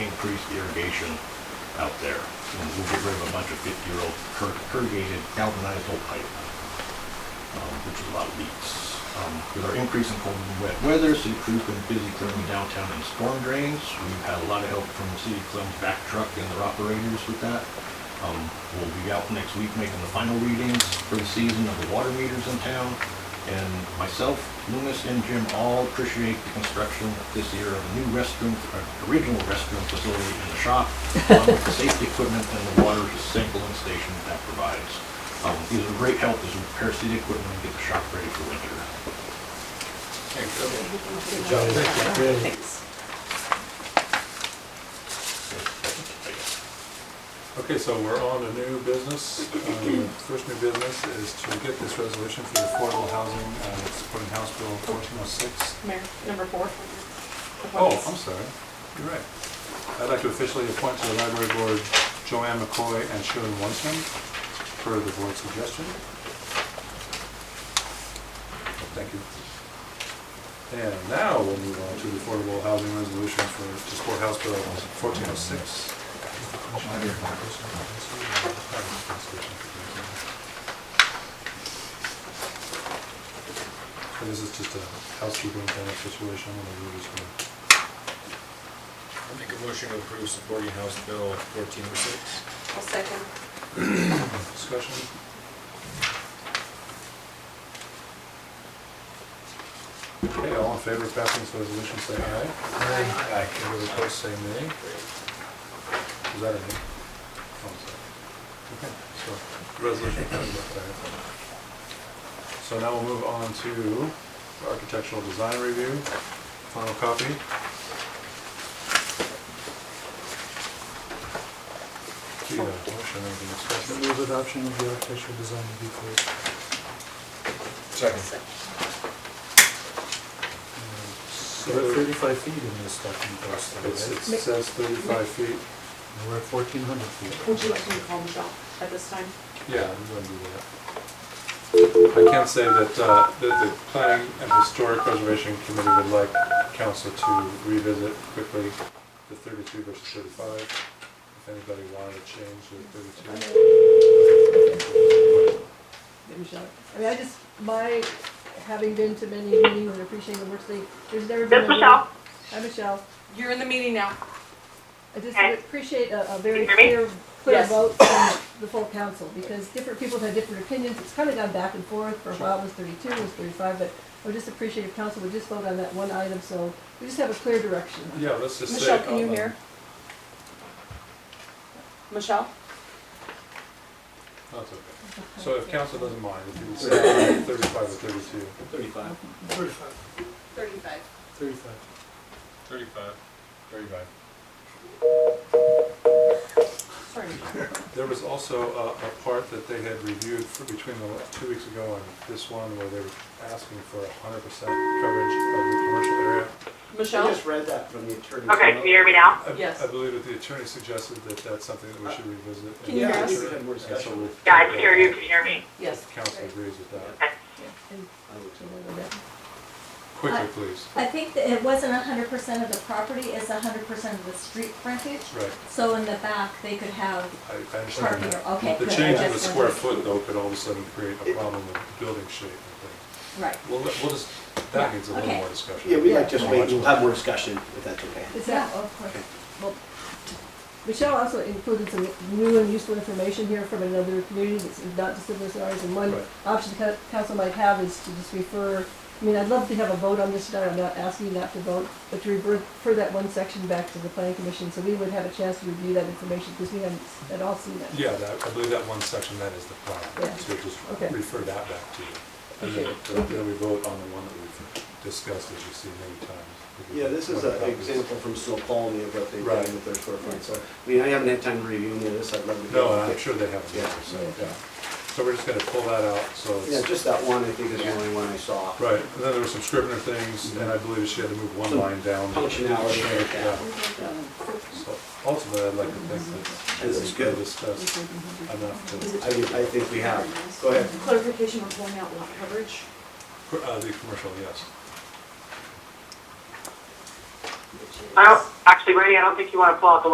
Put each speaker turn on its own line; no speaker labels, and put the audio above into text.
increase irrigation out there. And we'll get rid of a bunch of fifty-year-old cur- corrugated galvanized old pipe, um, which is a lot of leaks. Um, With our increase in cold and wet weather, city crew's been busy clearing downtown and storm drains. We've had a lot of help from the city of Clem's back truck and their operators with that. Um, We'll be out next week making the final readings for the season of the water meters in town. And myself, Loomis, and Jim all appreciate the construction this year of a new restroom, uh, original restroom facility in the shop, along with the safety equipment and the water sampling station that provides. Um, These are great help as we repair city equipment and get the shop ready for winter.
Thanks.
Okay, so we're on a new business. Um, First new business is to get this resolution for the affordable housing, uh, supporting House Bill 1406.
Mayor, number four.
Oh, I'm sorry, you're right. I'd like to officially appoint to the library board Joanne McCoy and Sharon Wonson per the board's suggestion. Thank you. And now we'll move on to the affordable housing resolution for, to support House Bill 1406. So This is just a housekeeping kind of situation, and we're just gonna
I'll make a motion to approve supporting House Bill fourteen oh six.
I'll second.
Discussion? Okay, all in favor of passing this resolution, say aye.
Aye.
Aye. Any opposed, say nay. Is that a nay? Oh, I'm sorry. Okay, so, the resolution passes by five. So now we'll move on to the architectural design review, final copy. Do you have a motion, anything to discuss?
Move adoption of the architectural design review code.
Second.
So
So we're at thirty-five feet in this document, Austin,
It
right?
says 35 feet.
And We're at fourteen hundred feet.
Would you like me to call Michelle at this time?
Yeah, I'm going to do that. I can say that uh, the the Planning and Historic Preservation Committee would like council to revisit quickly the 32 versus 35, if anybody wanted to change the 32.
that Michelle, I mean, I just, my, having been to many meetings and appreciating the work they, there's never been.
This is
a-
Michelle.
Hi, Michelle.
You're in the meeting now.
I just
Hi.
appreciate a, a very
Can you hear
clear, clear
Yes.
vote from the full council, because different people have had different opinions. It's kind of gone back and forth. For a while it was thirty-two, it was thirty-five, but I would just appreciate if council would just vote on that one item, so we just have a clear direction.
Yeah, let's just say.
Michelle, can you
outline.
hear? Michelle?
That's Oh, okay. So if council doesn't mind, if you would say 35 or 32.
Thirty-five.
Thirty-five.
Thirty-five.
Thirty-five.
Thirty-five. Thirty-five.
Sorry, Michelle.
There was also a, a part that they had reviewed for between the, la- two weeks ago and this one where they were asking for a hundred percent coverage of the commercial area.
I
Michelle?
just read that from the attorney.
Okay, can you hear me now?
I-
Yes.
I believe that the attorney suggested that that's something that we should revisit.
Can you
in the
hear us?
future,
Yeah, we're
and so
discussing.
we'll-
Yeah, I can hear you. Can you hear me?
Yes.
Council agrees with that.
Okay.
And-
I would say.
Uh,
Quickly, please.
I think that it wasn't hundred percent of the property, it's hundred percent of the street frontage.
Right,
So in the back, they could have
I, I
parking,
understand
or,
that.
okay,
The
good, I
change in the
just
square
wanted-
foot though could all of a sudden create a problem with building shape and things.
Right,
We'll, let- we'll just, that needs a little
Okay.
more discussion.
Yeah, we might just
Not
wait,
much
we'll
more.
have more discussion, if that's okay.
Is that, of course. Well, Michelle also included some new and useful information here from another community that's not dissimilar to ours, and one
Right.
option the cou- council might have is to just refer, I mean, I'd love to have a vote on this tonight, I'm not asking you not to vote, but to refer, refer that one section back to the planning commission, so we would have a chance to review that information, because we haven't at all seen that.
Yeah, that, I believe that one section, that is the plan,
Yeah.
so just
Okay.
refer that back to you. And
Okay.
then, then we vote on the one that we've discussed, as you see many times. We
Yeah,
get
this is
one
an
copy.
example from Snow Colony of what they've done
Right.
with their storefront, so, I mean, I haven't had time to review any of this, I'd love to.
No, and
get-
I'm sure they have
Yeah.
another, so, yeah. So we're just gonna pull that out, so
Yeah,
it's,
just that one, I think is the only one I saw.
right, and then there were some Scrivener things, and I believe she had to move one
Some
line down.
Functionality like that.
Yeah. So ultimately, I'd like to think that
This
this
is
has been
good.
discussed enough
I, would- I think we have, go ahead.
Clarification, we're pulling out lot coverage.
to, uh, the commercial, yes.
I don't, actually, Brady, I don't think you want to pull out the